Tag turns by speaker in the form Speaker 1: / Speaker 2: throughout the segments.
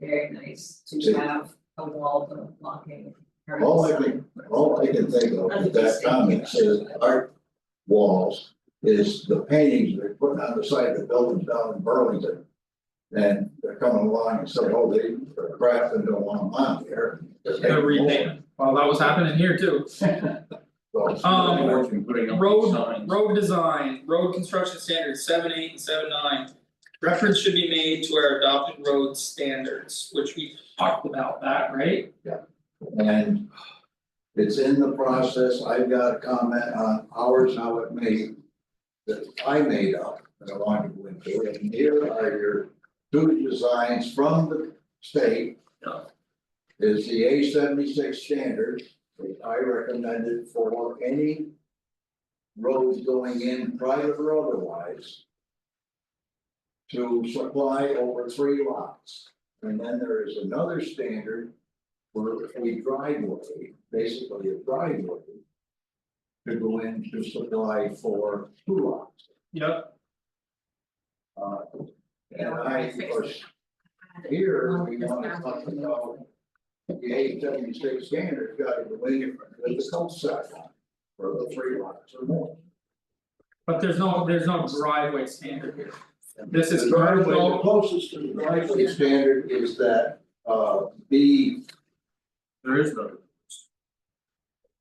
Speaker 1: very nice to have a wall of blocking. or
Speaker 2: All I
Speaker 1: something.
Speaker 2: All I can think of with that comment says art walls is the paintings they're putting on the side of the buildings down in Burlington. And they're coming along and saying, oh, they are crafting don't want them on there. Just
Speaker 3: They're
Speaker 2: have them
Speaker 3: repainting. Well, that was happening here too.
Speaker 2: over. So-
Speaker 3: Um,
Speaker 4: putting up
Speaker 3: road-
Speaker 4: signs.
Speaker 3: Road design, road construction standards, seven eight and seven nine. Reference should be made to our adopted road standards, which we talked about that, right?
Speaker 2: And it's in the process, I've got a comment on ours, how it made, that I made up, that I wanted to go into, and here are your two designs from the state.
Speaker 3: Yeah.
Speaker 2: Is the A seventy-six standard, which I recommended for any roads going in, private or otherwise, to supply over three lots. And then there is another standard for a driveway, basically a driveway. To go in to supply for two lots,
Speaker 3: Yep.
Speaker 2: uh, and
Speaker 1: Yeah, we're
Speaker 2: I,
Speaker 1: gonna
Speaker 2: of
Speaker 1: fix
Speaker 2: course,
Speaker 1: it.
Speaker 2: here,
Speaker 1: Well,
Speaker 2: we
Speaker 1: it's
Speaker 2: wanna
Speaker 1: not
Speaker 2: talk
Speaker 1: working.
Speaker 2: about. The eight seventy six standard got to go in here, it's called side line, for the three lots or more.
Speaker 3: But there's no, there's no driveway standard here. This
Speaker 2: The
Speaker 3: is
Speaker 2: driveway, the
Speaker 3: commercial,
Speaker 2: closest to the driveway standard is that, uh, B,
Speaker 4: There is no.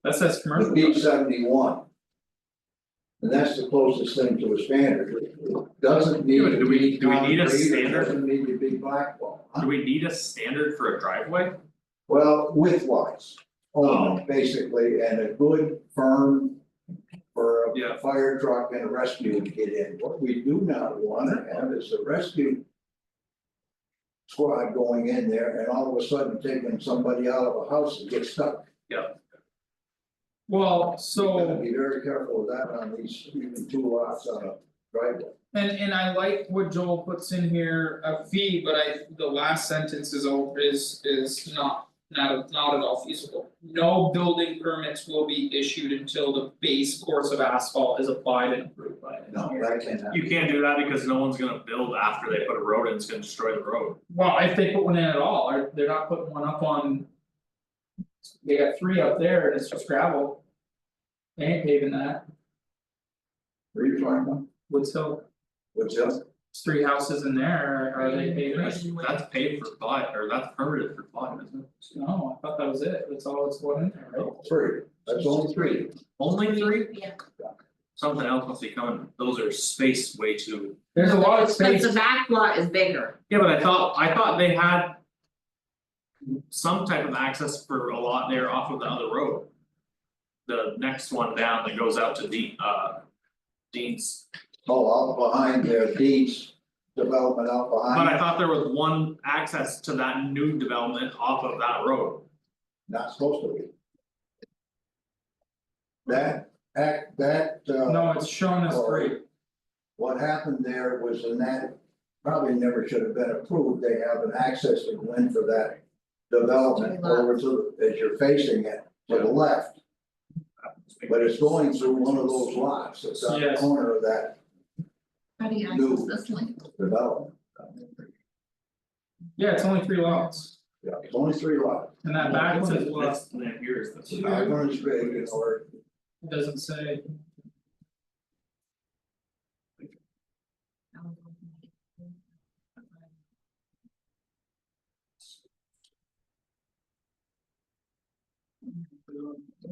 Speaker 3: that
Speaker 2: the
Speaker 3: says commercial.
Speaker 2: B seventy one. And that's the closest thing to a standard, It doesn't need
Speaker 4: Yeah, but
Speaker 2: to
Speaker 4: do we-
Speaker 2: be
Speaker 4: do we need a
Speaker 2: concrete, it
Speaker 4: standard?
Speaker 2: Doesn't need to be blackwall,
Speaker 4: Do we need a standard for a driveway?
Speaker 2: well, width wise,
Speaker 4: Oh.
Speaker 2: only basically, and a good firm. For
Speaker 3: Yeah.
Speaker 2: a fire truck and a rescue to get in, what we do not wanna have is a rescue. Squad going in there and all of a sudden taking somebody out of a house and get stuck.
Speaker 3: Well,
Speaker 2: You
Speaker 3: so.
Speaker 2: gotta Be very careful with that on these, even two lots on a driveway.
Speaker 3: And and I like what Joel puts in here, a fee, but I, the last sentence is all is is not, not not at all feasible. No building permits will be issued until the base course of asphalt is applied and approved by an
Speaker 2: No,
Speaker 3: engineer.
Speaker 2: that cannot.
Speaker 4: You can't do that because no one's gonna build after they put a road in, it's gonna destroy the road.
Speaker 3: Well, if they put one in at all, or they're not putting one up on. They got three up there and it's just gravel. They ain't paving that,
Speaker 2: Were you trying one?
Speaker 3: Woods Hill,
Speaker 2: What's that?
Speaker 3: it's three houses in there, are they paving it?
Speaker 4: That's that's paid for by, or that's permitted for by, isn't it?
Speaker 3: No, I thought that was it, that's all that's one in there, right?
Speaker 2: Three, that's only three.
Speaker 4: Only three,
Speaker 1: Yeah.
Speaker 4: something else must be coming, those are spaced way too.
Speaker 3: There's a lot of space.
Speaker 1: But the back lot is bigger.
Speaker 4: Yeah, but I thought, I thought they had. Some type of access for a lot there off of the other road. The next one down that goes out to Dean, uh. Dean's,
Speaker 2: Oh, out behind their deeds, development out
Speaker 4: but I
Speaker 2: behind,
Speaker 4: thought there was one access to that new development off of that road.
Speaker 2: not supposed to be. That, act, that, uh,
Speaker 3: No, it's showing us three,
Speaker 2: what happened there was in that, probably never should have been approved, they have an access to go in for that. Development over to, as you're facing it, to the left, but it's going through one of those lots, that's on the
Speaker 3: Yes.
Speaker 2: corner of that
Speaker 1: How do you
Speaker 2: No.
Speaker 1: access this link?
Speaker 2: development.
Speaker 3: yeah, it's only three lots,
Speaker 2: Yeah, it's only three lots,
Speaker 3: and that back one is what,
Speaker 4: That's- that here is the-
Speaker 2: it's not going to be, or
Speaker 3: it doesn't say,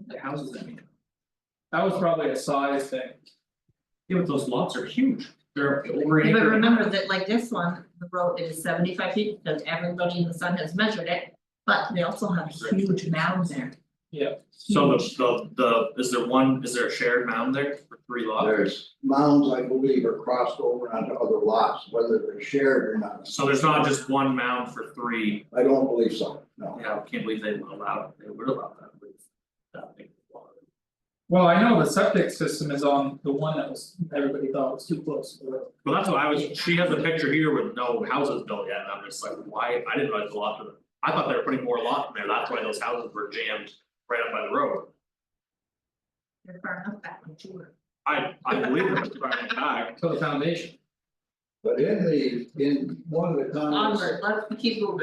Speaker 4: The houses, I mean,
Speaker 3: that was probably a size thing.
Speaker 4: yeah, but those lots are huge, they're over
Speaker 1: But
Speaker 4: an acre.
Speaker 1: remember that like this one, the road is seventy five feet because everybody in the sun has measured it, but they also have a huge mound there.
Speaker 4: So the the the, is there one, is there a shared mound there for three lots?
Speaker 2: There's mounds, I believe, are crossed over onto other lots, whether they're shared or not,
Speaker 4: So there's not just one mound for three,
Speaker 2: I don't believe so, no.
Speaker 4: yeah, I can't believe they allowed, they would allow that with that big lot.
Speaker 3: Well, I know the septic system is on the one that was, everybody thought was too close to the road.
Speaker 4: Well, that's what I was, she has a picture here with no houses built yet, and I'm just like, why, I didn't realize the lot, was- I thought they were putting more lot in there, that's why those houses were jammed right up by the road.
Speaker 1: They're far enough back from Jewel.
Speaker 4: I I believe it was right back,
Speaker 3: to the foundation.
Speaker 2: But in the, in one of the comments.
Speaker 1: Onward, let's keep moving.